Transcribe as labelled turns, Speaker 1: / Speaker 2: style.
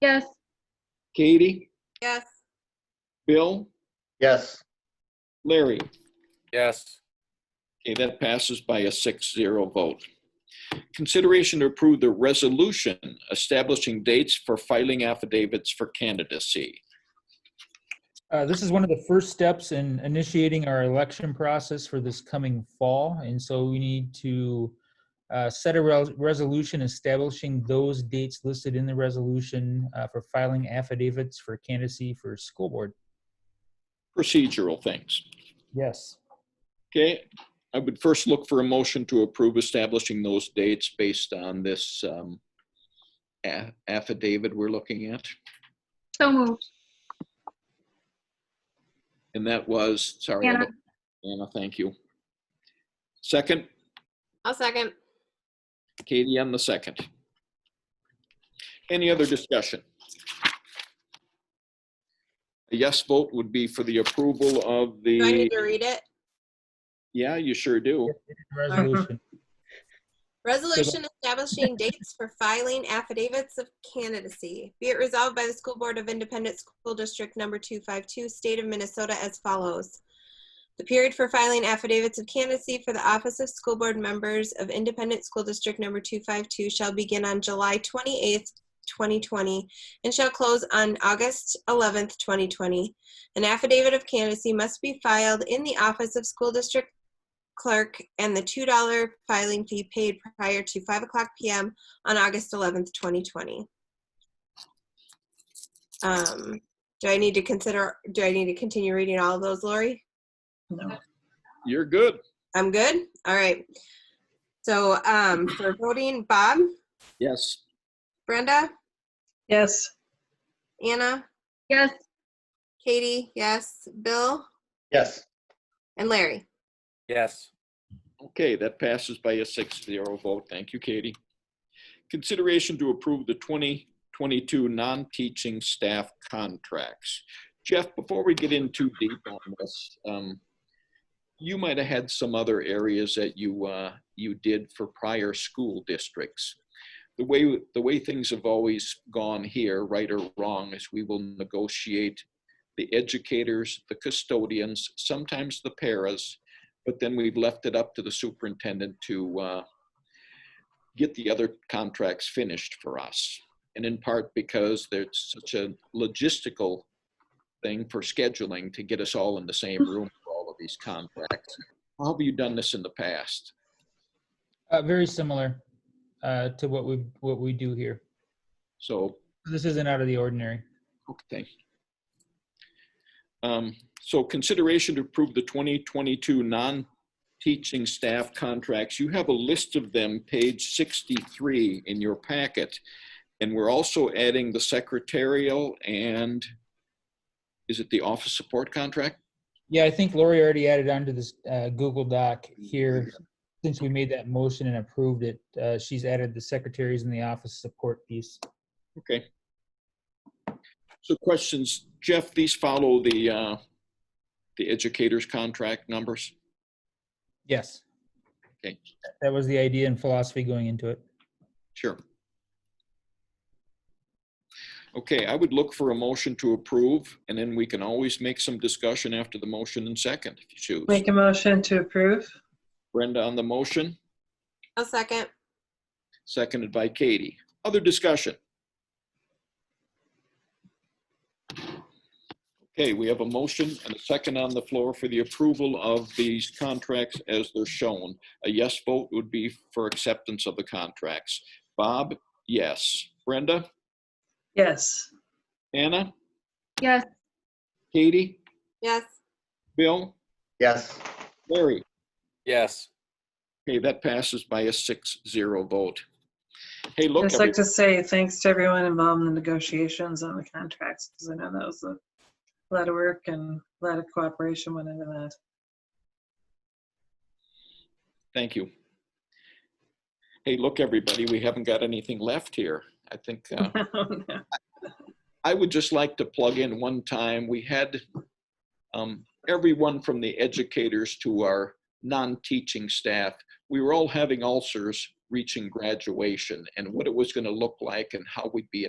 Speaker 1: Yes.
Speaker 2: Katie,
Speaker 3: Yes.
Speaker 2: Bill,
Speaker 4: Yes.
Speaker 2: Larry.
Speaker 5: Yes.
Speaker 2: Okay, that passes by a 6-0 vote. Consideration to approve the resolution establishing dates for filing affidavits for candidacy.
Speaker 6: Uh, This is one of the first steps in initiating our election process for this coming fall. And so we need to uh, set a rel- resolution establishing those dates listed in the resolution uh, for filing affidavits for candidacy for school board.
Speaker 2: Procedural things.
Speaker 6: Yes.
Speaker 2: Okay, I would first look for a motion to approve establishing those dates based on this um, a- affidavit we're looking at.
Speaker 1: So moved.
Speaker 2: And that was, sorry. I
Speaker 1: Anna.
Speaker 2: don't- Anna, thank you. Second,
Speaker 3: I'll second.
Speaker 2: Katie on the second. Any other discussion? A yes vote would be for the approval of
Speaker 3: Do I
Speaker 2: the,
Speaker 3: need to read it?
Speaker 2: yeah, you sure do.
Speaker 6: Resolution.
Speaker 3: Resolution establishing dates for filing affidavits of candidacy. Be it resolved by the School Board of Independent School District Number 252, State of Minnesota as follows. The period for filing affidavits of candidacy for the office of school board members of Independent School District Number 252 shall begin on July 28th, 2020, and shall close on August 11th, 2020. An affidavit of candidacy must be filed in the office of school district clerk and the $2 filing fee paid prior to 5 o'clock PM on August 11th, 2020. Um, Do I need to consider, do I need to continue reading all of those, Lori?
Speaker 2: You're good.
Speaker 3: I'm good? All right. So um, for voting, Bob,
Speaker 2: Yes.
Speaker 3: Brenda,
Speaker 7: Yes.
Speaker 3: Anna,
Speaker 1: Yes.
Speaker 3: Katie, yes, Bill,
Speaker 4: Yes.
Speaker 3: and Larry.
Speaker 5: Yes.
Speaker 2: Okay, that passes by a 6-0 vote. Thank you, Katie. Consideration to approve the 2022 non-teaching staff contracts. Jeff, before we get in too deep on this, um, you might have had some other areas that you, uh, you did for prior school districts. The way, the way things have always gone here, right or wrong, is we will negotiate the educators, the custodians, sometimes the paras, but then we've left it up to the superintendent to uh, get the other contracts finished for us. And in part because there's such a logistical thing for scheduling to get us all in the same room for all of these contracts. How have you done this in the past?
Speaker 6: Uh, Very similar uh, to what we, what we do here.
Speaker 2: So,
Speaker 6: This isn't out of the ordinary.
Speaker 2: okay. Um, So consideration to approve the 2022 non-teaching staff contracts. You have a list of them, page 63 in your packet. And we're also adding the secretarial and, is it the office support contract?
Speaker 6: Yeah, I think Lori already added onto this uh, Google Doc here. Since we made that motion and approved it, uh, she's added the secretaries in the office support piece.
Speaker 2: Okay. So questions, Jeff, these follow the, uh, the educators' contract numbers?
Speaker 6: Yes.
Speaker 2: Okay.
Speaker 6: That was the idea and philosophy going into it.
Speaker 2: Sure. Okay, I would look for a motion to approve, and then we can always make some discussion after the motion and second, if you choose.
Speaker 7: Make a motion to approve?
Speaker 2: Brenda on the motion,
Speaker 3: I'll second.
Speaker 2: seconded by Katie. Other discussion? Okay, we have a motion and a second on the floor for the approval of these contracts as they're shown. A yes vote would be for acceptance of the contracts. Bob, yes. Brenda?
Speaker 7: Yes.
Speaker 2: Anna?
Speaker 1: Yes.
Speaker 2: Katie?
Speaker 3: Yes.
Speaker 2: Bill?
Speaker 4: Yes.
Speaker 2: Larry?
Speaker 5: Yes.
Speaker 2: Okay, that passes by a six zero vote. Hey,
Speaker 7: I'd
Speaker 2: look,
Speaker 7: just like to say thanks to everyone involved in the negotiations on the contracts, because I know that was a lot of work and a lot of cooperation went into that.
Speaker 2: every- thank you. Hey, look, everybody, we haven't got anything left here. I think, uh,
Speaker 7: Oh,
Speaker 2: I would just like to plug in one time, we had um, everyone from the educators to our non-teaching staff, we were all having ulcers reaching graduation and what it was going to look like and how we'd be